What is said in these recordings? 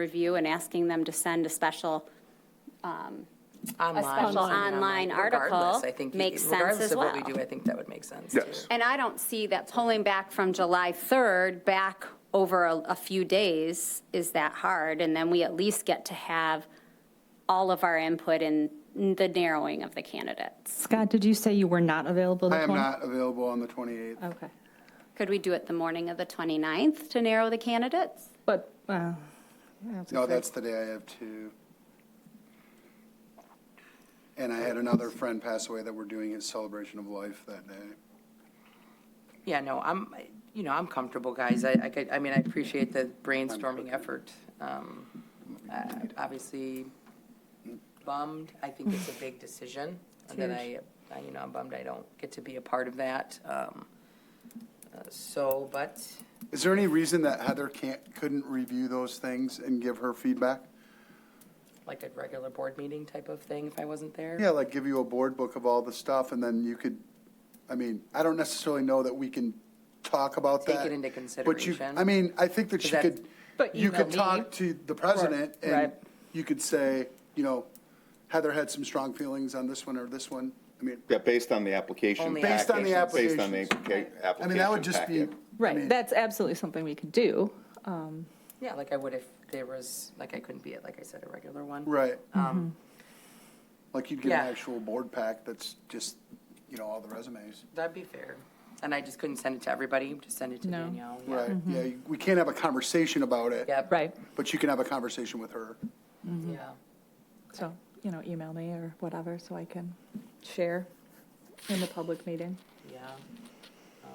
review and asking them to send a special, a special Online. online article Regardless, I think, makes sense regardless as of what well. we do, I think that would make sense. Yes. too. And I don't see that pulling back from July 3rd back over a, a few days is that hard. And then we at least get to have all of our input in the narrowing of the candidates. Scott, did you say you were not available the I am 20? not available on the 28th. Okay. Could we do it the morning of the 29th to narrow the candidates? But, uh, No, Oh, that's the day I have two. And I had another friend pass away that we're doing his celebration of life that day. Yeah, no, I'm, you know, I'm comfortable, guys. I, I could, I mean, I appreciate the brainstorming effort. Um, uh, Obviously bummed. I think it's a big decision. And then I, I, you know, I'm bummed I don't get to be a part of that. Um, uh, So, but, Is there any reason that Heather can't, couldn't review those things and give her feedback? like a regular board meeting type of thing if I wasn't there? Yeah, like give you a board book of all the stuff and then you could, I mean, I don't necessarily know that we can talk about Take that. it into But you, consideration. I mean, I think that Is you that- could, But you email could me. talk to the president and Right. you could say, you know, Heather had some strong feelings on this one or this one. I mean, Yeah, based on the application Only- package. Based on the Based on the applica- application packet. I mean, that would just be. I right, mean, that's absolutely something we could do. Um, Yeah, like I would if there was, like I couldn't be at, like I said, a regular one. Right, Mm-hmm. Um, like you'd get an Yeah. actual board pack that's just, you know, all the resumes. That'd be fair. And I just couldn't send it to everybody, just send it to No. Danielle. yeah. Right, Mm-hmm. yeah, you- we can't have a conversation about it. Yep. Right, Mm-hmm. But you can have a conversation with her. Yeah. so, you know, email me or whatever so I can share in the public meeting. Yeah. Um,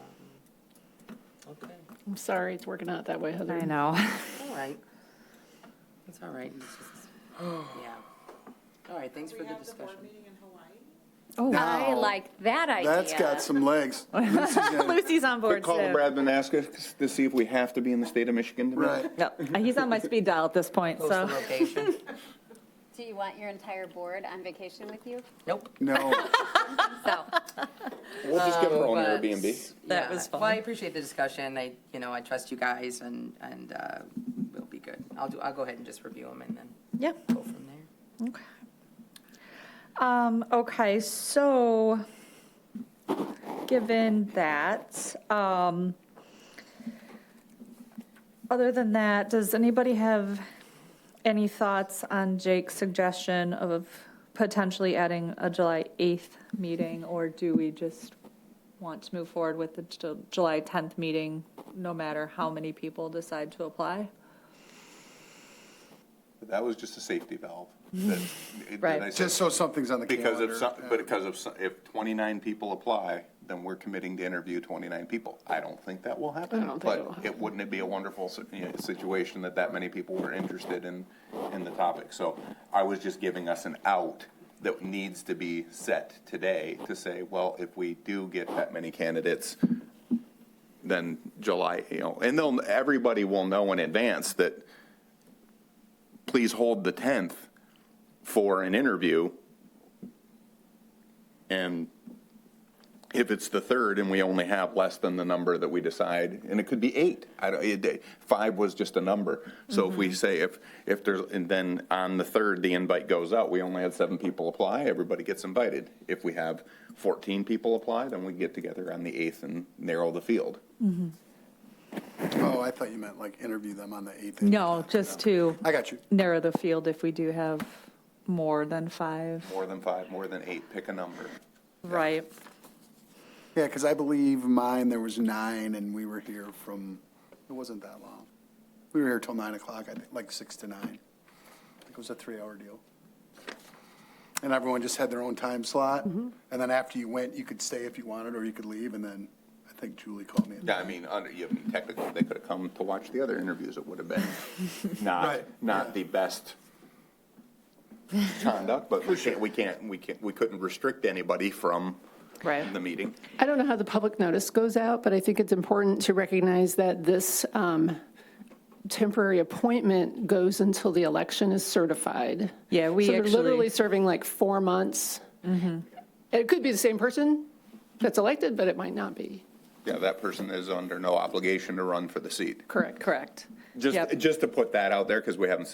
Okay, I'm sorry, it's working out that way, Heather. I know. all right. It's all right. It's just- Yeah. All right, thanks for the discussion. Oh, I like that idea. That's got some legs. Lucy's gonna- Lucy's on board, Call too. Brad Manaska to see if we have to be in the state of Michigan tonight. Right, No, he's on my speed dial at this point, Post the so. location. Do you want your entire board on vacation with you? Nope. no, So, We'll just get our own Uh, But, Airbnb. That yeah. was Well, I fun. appreciate the discussion. I, you know, I trust you guys and, and uh, we'll be good. I'll do, I'll go ahead and just review them and then Yeah. go from there. Okay. Um, okay, so, given that, um, other than that, does anybody have any thoughts on Jake's suggestion of potentially adding a July 8th meeting? Or do we just want to move forward with the Ju- July 10th meeting, no matter how many people decide to apply? That was just a safety valve. that- that I Right. said, just so something's on the Because calendar. um, if, some- but because of, some- if 29 people apply, then we're committing to interview 29 people. I don't think that will happen. I don't think it will But it, wouldn't it be a wonderful si- you know, situation that that many people were interested in, in the topic? So I was just giving us an out that needs to be set today to say, well, if we do get that many candidates, then July, you know, and they'll, everybody will know in advance that, please hold the 10th for an interview. And if it's the third and we only have less than the number that we decide, and it could be eight, I don't, it, five was just a number. So if we say if, if there's, and then on the third, the invite goes out, we only had seven people apply, everybody gets invited. If we have 14 people apply, then we get together on the eighth and narrow the field. Oh, I thought you meant like interview them on the 8th. No, just to I got you. narrow the field if we do have more than five, More than five, more than eight, pick a number. right? Yeah, because I believe mine, there was nine, and we were here from, it wasn't that long. We were here till nine o'clock, I think, like six to nine. I think it was a three-hour deal. And everyone just had their own time slot, and then after you went, you could stay if you wanted, or you could leave, and then I think Julie called me. Yeah, I mean, under, yeah, I mean, technically, they could have come to watch the other interviews, it would have been not, Right, not the best conduct, but we can't, we can't, we can't, we couldn't restrict anybody from Right. the meeting. I don't know how the public notice goes out, but I think it's important to recognize that this um, temporary appointment goes until the election is certified. Yeah, we So actually- Mm-hmm. they're literally serving like four months. It could be the same person that's elected, but it might not be. Yeah, that person is under no obligation to run for the seat. Correct. Correct. Yep. Just, just to put that out there, because we haven't